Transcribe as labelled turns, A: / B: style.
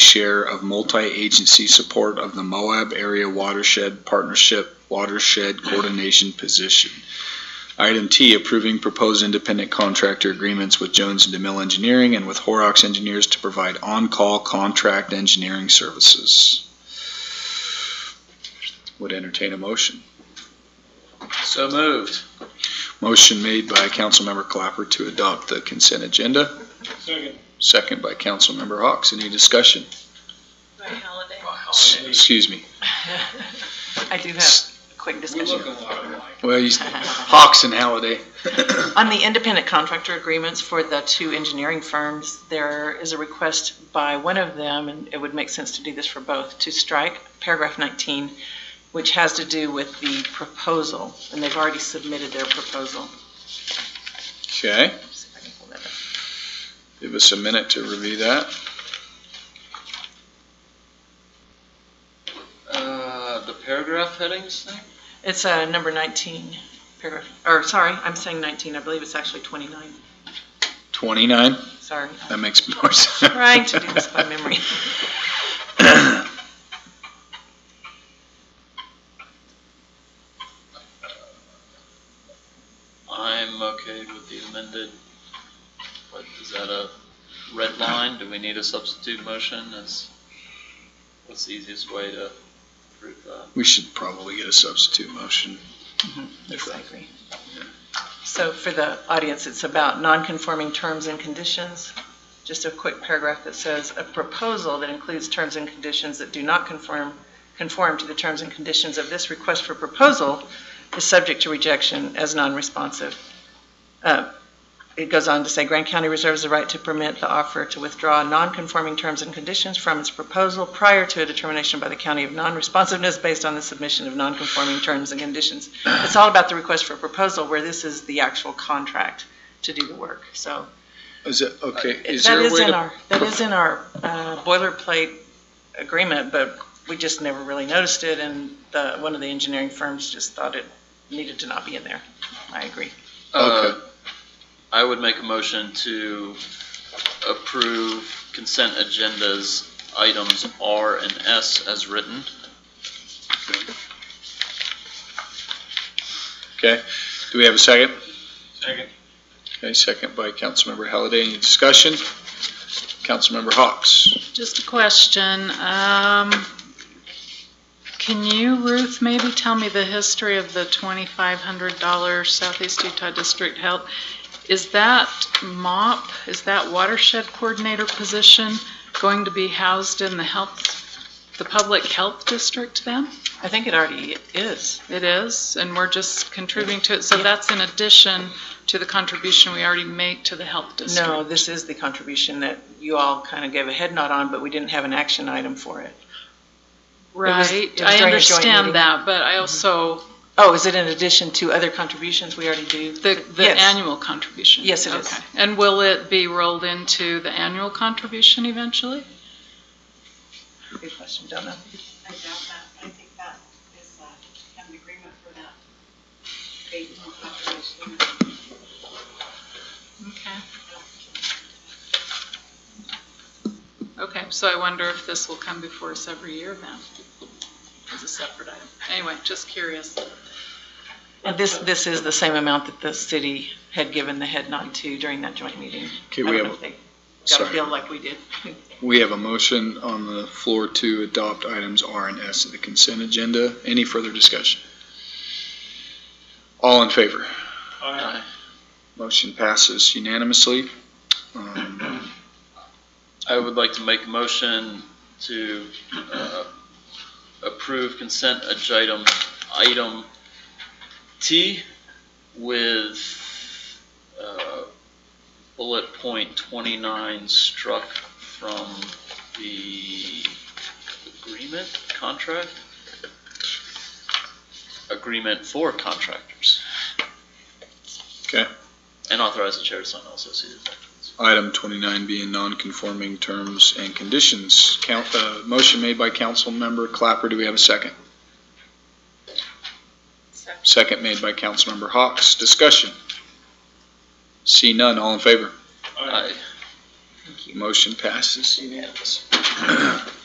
A: share of multi-agency support of the Moab Area Watershed Partnership Watershed Coordination Position. Item T, approving proposed independent contractor agreements with Jones and DeMille Engineering and with Horrocks Engineers to provide on-call contract engineering services. Would entertain a motion.
B: So moved.
A: Motion made by Councilmember Clapper to adopt the consent agenda,
B: Second.
A: second by Councilmember Hawks. Any discussion?
C: By Halliday.
A: S- Excuse me.
D: I do have a quick
B: We look
D: discussion.
B: a lot alike.
A: Well, you- Hawks and Halliday.
D: On the independent contractor agreements for the two engineering firms, there is a request by one of them, and it would make sense to do this for both, to strike paragraph 19, which has to do with the proposal, and they've already submitted their proposal.
A: Okay,
D: See if I can pull that up.
A: give us a minute to review that.
B: Uh, the paragraph headings thing?
D: It's uh, number 19, paragraph, or sorry, I'm saying 19, I believe it's actually 29,
A: 29,
D: sorry.
A: that makes more sense.
D: Trying to do this by memory.
B: I'm okay with the amended, what, is that a red line? Do we need a substitute motion? Is, what's the easiest way to prove that?
A: We should probably get a substitute motion.
D: Yes, I agree. So for the audience, it's about non-conforming terms and conditions. Just a quick paragraph that says, "A proposal that includes terms and conditions that do not conform, conform to the terms and conditions of this request for proposal is subject to rejection as non-responsive." Uh, It goes on to say, "Grand County reserves the right to permit the offeror to withdraw non-conforming terms and conditions from its proposal prior to a determination by the county of non-responsiveness based on the submission of non-conforming terms and conditions." It's all about the request for proposal where this is the actual contract to do the work. So
A: Is it, okay, is
D: Uh, that
A: there a
D: is
A: way
D: in
A: to?
D: our, that is in our uh, boilerplate agreement, but we just never really noticed it and the, one of the engineering firms just thought it needed to not be in there. I agree.
B: Uh, I would make a motion to approve consent agendas items R and S as written.
A: Okay, do we have a second?
B: Second.
A: Okay, second by Councilmember Halliday. Any discussion? Councilmember Hawks?
E: Just a question. Um, Can you, Ruth, maybe tell me the history of the $2,500 Southeast Utah District Health? Is that MOP, is that watershed coordinator position going to be housed in the health, the public health district then?
D: I think it already is.
E: It is, and we're just contributing to it. So that's in addition to the contribution we already make to the health district?
D: No, this is the contribution that you all kind of gave a head nod on, but we didn't have an action item for it. was- it
E: Right,
D: was during a
E: I
D: joint meeting.
E: understand that, but I also,
D: Oh, is it in addition to other contributions we already do?
E: The, the
D: Yes.
E: annual contribution?
D: Yes, it is.
E: Okay. And will it be rolled into the annual contribution eventually?
D: Good question, don't know.
F: I doubt that, I think that is, uh, have an agreement for that. Based on population.
E: Okay. Okay, so I wonder if this will come before us every year then, as a separate item. Anyway, just curious.
D: And this, this is the same amount that the city had given the head nod to during that joint meeting.
A: Okay,
D: I
A: we
D: don't know
A: have,
D: if they got a
A: sorry.
D: bill like we did.
A: We have a motion on the floor to adopt items R and S of the consent agenda. Any further discussion? All in favor?
B: Aye.
A: Motion passes unanimously. Um,
B: I would like to make a motion to uh, approve consent agenda item T with uh, bullet point 29 struck from the agreement, contract? Agreement for contractors,
A: Okay,
B: and authorize the chair to sign all associated documents.
A: item 29 being non-conforming terms and conditions. Count, uh, motion made by Councilmember Clapper. Do we have a second?
C: Second.
A: Second made by Councilmember Hawks. Discussion? See none, all in favor?
B: Aye.
A: Motion passes unanimously.